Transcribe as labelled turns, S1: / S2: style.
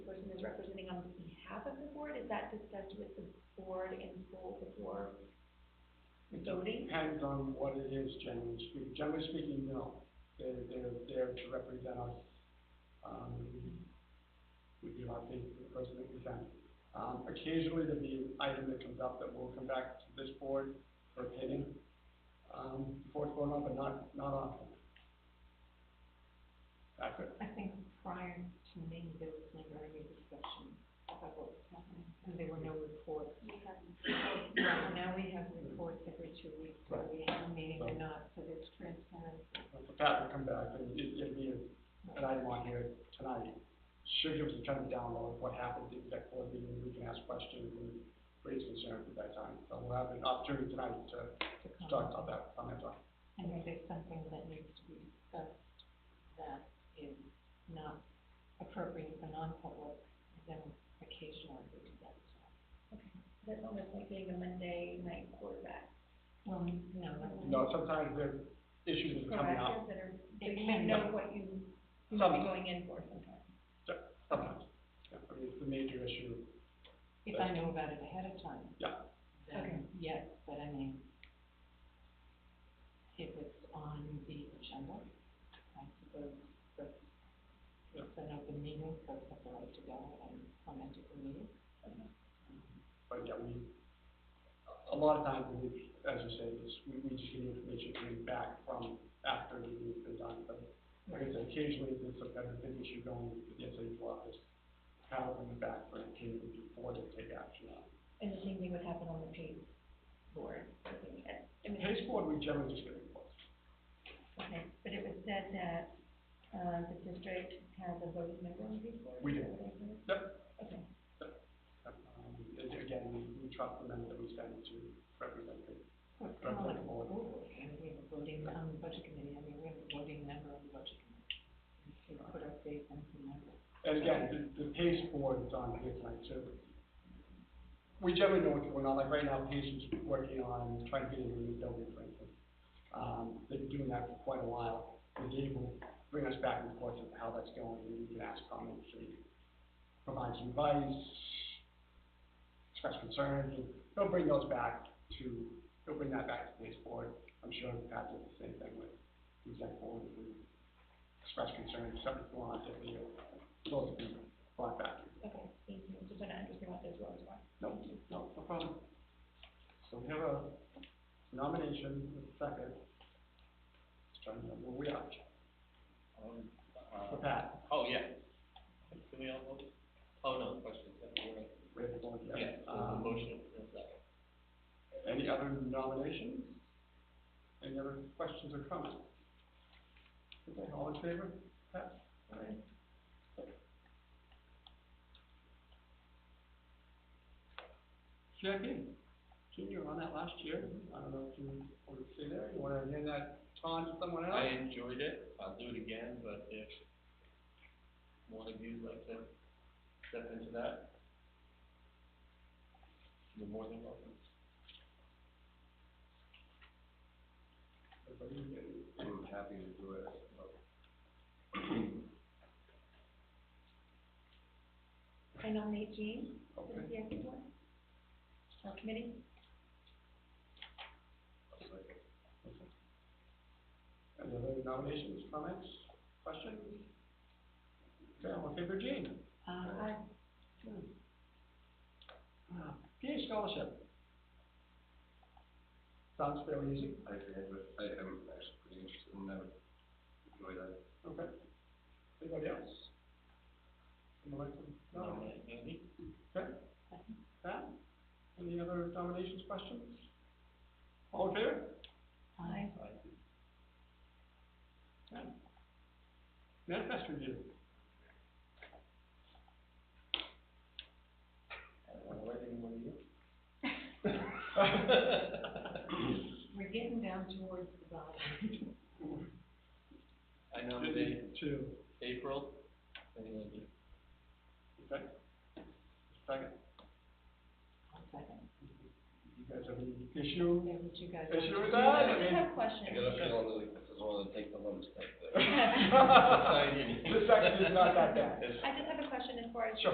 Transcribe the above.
S1: representing on behalf of the board, is that discussed with the board in full before
S2: It
S1: voting?
S2: Depends on what it is, generally speaking. Generally speaking, no. They're, they're there to represent us. Um, we give our thing to the person that we send. Um, occasionally there'll be an item that comes up that will come back to this board for opinion. Um, before it's going on, but not, not often. That's it.
S3: I think prior to me, there was never any discussion about what was happening, and there were no reports. Right, now we have reports every two weeks, whether we have a meeting or not, so there's transparency.
S2: If Pat would come back, then it, it'd be an item on here tonight. Should give us a kind of download of what happened at the exec board meeting, we can ask questions and raise concerns at that time. So we'll have an opportunity tonight to
S3: to
S2: to
S3: come.
S2: talk about that, on that topic.
S3: And if there's something that needs to be discussed that is not appropriate for non-public, then occasionally we do that. as well.
S1: That's almost like doing a Monday night quarterback.
S3: Well, no, that's.
S2: You know, sometimes there are issues that are coming up,
S1: Proactive that are,
S3: It
S1: that you
S3: can
S1: know
S2: be.
S1: what you, you might be going in for sometimes.
S2: sometimes. Yeah, I mean, it's a major issue.
S3: If I know about it ahead of time.
S2: Yeah.
S1: Okay.
S3: Then, yes, but I mean, if it's on the agenda, I suppose that's, it's an open meeting, so it's a right to go and comment at the meeting.
S2: But yeah, we, a lot of times, we, as you say, it's, we, we just get information coming back from after the meeting's been done. But like I said, occasionally there's some kind of big issue going with the SAU office, how it comes back for a team before they take action on. it.
S1: And the same thing would happen on the pay board, I think, at- I mean,
S2: Pace board, we generally just get reports.
S1: okay, but it was said that, uh, the district has a voting member on the pay board.
S2: We do.
S1: is that what I heard?
S2: Yep.
S1: Okay,
S2: Um, and again, we, we trust the men that we send to represent them.
S3: So it's kind of like
S2: Representative.
S3: a board, I mean, we have a voting on the budget committee, I mean, we have a voting member on the budget committee. We put our faith in the member.
S2: And again, the, the pace board is on here tonight, so we generally know what's going on, like right now, Pace is working on trying to get into a new building, for instance. Um, they've been doing that for quite a while, and they will bring us back and forth of how that's going, and we can ask comments, and provide some advice, express concerns, and they'll bring those back to, they'll bring that back to the pace board. I'm sure Pat did the same thing with the exec board, if we express concerns, something's going on, if we, those will be brought back.
S1: okay, thank you, just trying to understand what those roles are.
S2: No, no, no problem. So we have a nomination, a second. Just trying to remember where we are,
S4: Um,
S2: for
S4: uh,
S2: Pat,
S4: oh, yeah. Can we all vote? Oh, no, questions, that's all right.
S2: we have the board here.
S4: Yeah, so the
S2: Um,
S4: motion in a second.
S2: Any other nominations? Any other questions or comments? Okay, all in favor? Pat? Aye. Jackie, Junior on that last year, I don't know if you want to stay there, you want to hand that on to someone else?
S4: I enjoyed it, I'll do it again, but if one of you would like to step into that, you're more than welcome.
S2: Everybody good?
S5: I'm happy to do it.
S1: I nominate Jean, for the
S2: Okay,
S1: CIP board. Uh, committee,
S2: any other nominations, comments, questions? Okay, all in favor, Jane?
S3: Uh,
S1: aye.
S2: Uh, PA scholarship. Sounds fairly easy,
S5: I agree, but I am actually pretty interested in that. Enjoy that.
S2: okay. Anybody else? Anyone like to, no,
S4: Nominate Andy?
S2: okay. Pat, any other nominations, questions? All in favor?
S3: I,
S2: Manifest review.
S4: I don't wanna let anyone in.
S3: we're getting down towards the bottom.
S4: I nominate
S2: Two,
S4: April, and Andy.
S2: okay. Second,
S3: One second,
S2: you guys have any issue?
S3: there was you guys.
S2: Issue with that, I
S1: I
S2: mean,
S1: have questions.
S5: I got a feeling like this is one of the take the lumps type thing.
S2: The second is not that bad.
S4: It's-
S1: I just have a question as far as
S2: Sure.